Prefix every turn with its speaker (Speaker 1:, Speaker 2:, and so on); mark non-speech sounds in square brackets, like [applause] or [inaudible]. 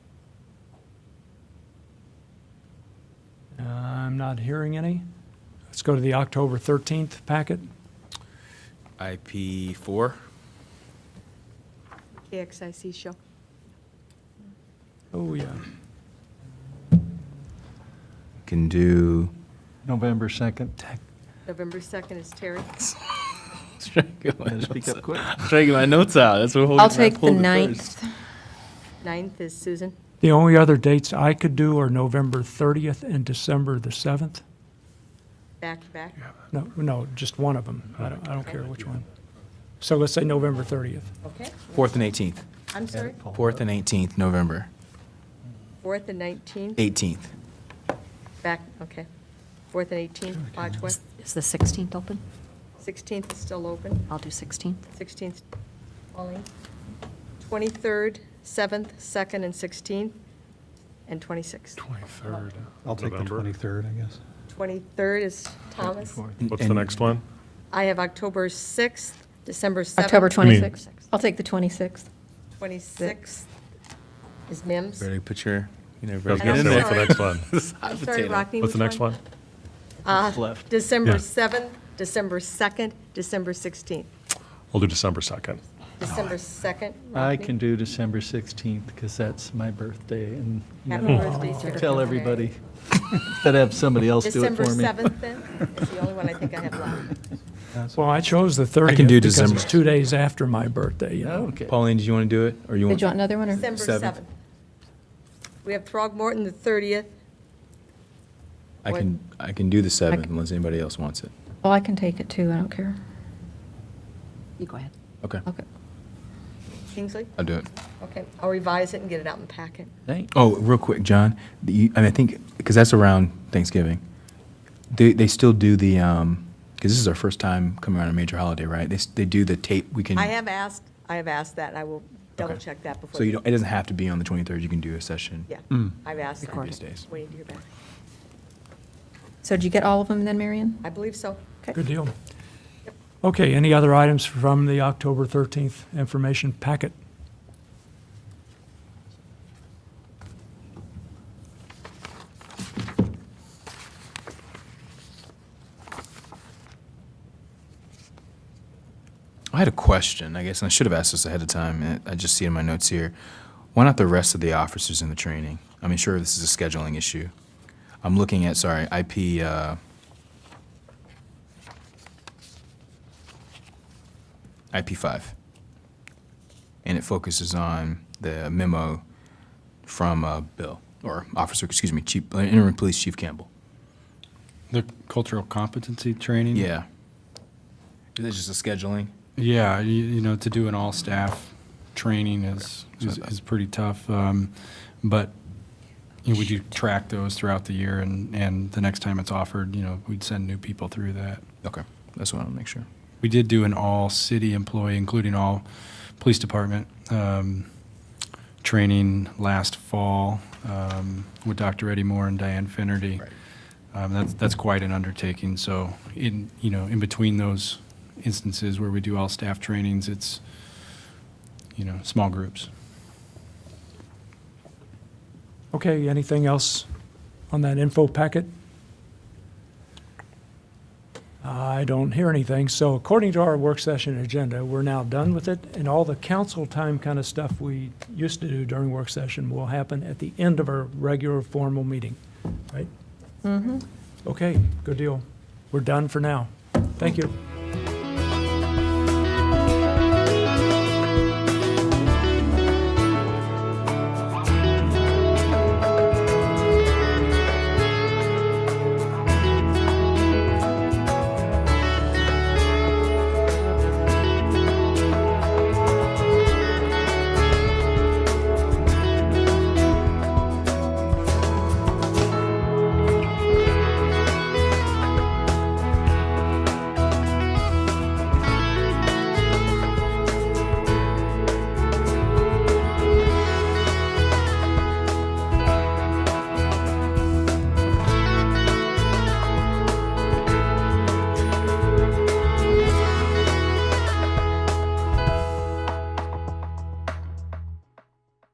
Speaker 1: Uh, I'm not hearing any. Let's go to the October 13th packet.
Speaker 2: IP four.
Speaker 3: KXIC show.
Speaker 1: Oh, yeah.
Speaker 2: Can do.
Speaker 4: November 2nd.
Speaker 3: November 2nd is Terry.
Speaker 4: Better speak up quick.
Speaker 2: Trying to get my notes out. That's what.
Speaker 5: I'll take the ninth.
Speaker 3: 9th is Susan.
Speaker 1: The only other dates I could do are November 30th and December the 7th.
Speaker 3: Back to back.
Speaker 1: No, no, just one of them. I don't, I don't care which one. So let's say November 30th.
Speaker 3: Okay.
Speaker 2: Fourth and eighteenth.
Speaker 3: I'm sorry.
Speaker 2: Fourth and eighteenth, November
Speaker 3: 4th and 19th.
Speaker 2: eighteenth.
Speaker 3: Back, okay. 4th and 18th, Bodgewell.
Speaker 5: Is the 16th open?
Speaker 3: 16th is still open.
Speaker 5: I'll do 16th.
Speaker 3: 16th. 23rd, 7th, 2nd, and 16th, and 26th.
Speaker 6: Twenty-third.
Speaker 4: I'll take the 23rd, I guess.
Speaker 3: 23rd is Thomas.
Speaker 6: What's the next one?
Speaker 3: I have October 6th, December 7th.
Speaker 5: October
Speaker 6: I mean-
Speaker 5: 26th. I'll take the 26th.
Speaker 3: 26th is MIMS.
Speaker 2: Ready, put your, you know,
Speaker 6: I was
Speaker 2: ready.
Speaker 6: gonna
Speaker 3: I'm
Speaker 6: say, what's the
Speaker 3: sorry.
Speaker 6: next one?
Speaker 2: [laughs]
Speaker 3: I'm sorry, Rockne,
Speaker 6: What's the
Speaker 3: which
Speaker 6: next one?
Speaker 3: Uh, December
Speaker 6: Yeah.
Speaker 3: 7th, December 2nd, December 16th.
Speaker 6: We'll do December 2nd.
Speaker 3: December 2nd.
Speaker 4: I
Speaker 3: Rodney.
Speaker 4: can do December 16th because that's my birthday and you
Speaker 3: Happy
Speaker 4: know,
Speaker 3: birthday, sir.
Speaker 4: tell everybody [laughs] that I have somebody else do it
Speaker 3: December
Speaker 4: for me.
Speaker 3: 7th then is the only one I think I have left.
Speaker 4: [laughs]
Speaker 1: Well, I chose the 30th.
Speaker 2: do
Speaker 1: Because it's
Speaker 2: December.
Speaker 1: two days after my birthday, you know.
Speaker 4: Okay.
Speaker 2: Pauline, did you want to do it, or you
Speaker 5: Did
Speaker 2: want?
Speaker 5: you want another one, or?
Speaker 3: December
Speaker 2: Seventh.
Speaker 3: 7th. We have Throgmorton the 30th.
Speaker 2: I can, I can do the seventh unless anybody else wants it.
Speaker 5: Oh, I can take it too, I don't care. You go ahead.
Speaker 2: Okay,
Speaker 5: Okay.
Speaker 3: Kingsley?
Speaker 2: I'll do it.
Speaker 3: Okay, I'll revise it and get it out in the packet.
Speaker 4: Thank-
Speaker 2: Oh, real quick, John, the- you- and I think, because that's around Thanksgiving, they, they still do the, um, because this is our first time coming around a major holiday, right? They, s- they do the tape, we can.
Speaker 3: I have asked, I have asked that, and I will double check that before.
Speaker 2: So you don't, it doesn't have to be on the 23rd, you can do a session.
Speaker 3: Yeah, I've asked that.
Speaker 2: Previous days.
Speaker 3: Waiting to hear back.
Speaker 5: So did you get all of them then, Marion?
Speaker 3: I believe so.
Speaker 1: Good deal. Okay, any other items from the October 13th information packet?
Speaker 2: I had a question, I guess, and I should have asked this ahead of time. and I just see it in my notes here. Why not the rest of the officers in the training? I mean, sure, this is a scheduling issue. I'm looking at, sorry, IP, uh, IP five. And it focuses on the memo from, uh, Bill, or Officer, excuse me, Chief, uh, Interim Police Chief Campbell.
Speaker 7: The cultural competency training?
Speaker 2: Yeah. Is this just a scheduling?
Speaker 7: Yeah, you, you know, to do an all-staff training is,
Speaker 2: Okay.
Speaker 7: is, is pretty tough. Um, but, you know, we do track those throughout the year and, and the next time it's offered, you know, we'd send new people through that.
Speaker 2: Okay, that's what I want to make sure.
Speaker 7: We did do an all-city employee, including all police department, um, training last fall, um, with Dr. Eddie Moore and Diane Finnerty.
Speaker 2: Right.
Speaker 7: Um, that's, that's quite an undertaking, so in, you know, in between those instances where we do all staff trainings, it's, you know, small groups.
Speaker 1: Okay, anything else on that info packet? I don't hear anything, so according to our work session agenda, we're now done with it, and all the council time kind of stuff we used to do during work session will happen at the end of our regular formal meeting, right? Mm-hmm. Okay, good deal. We're done for now. Thank you.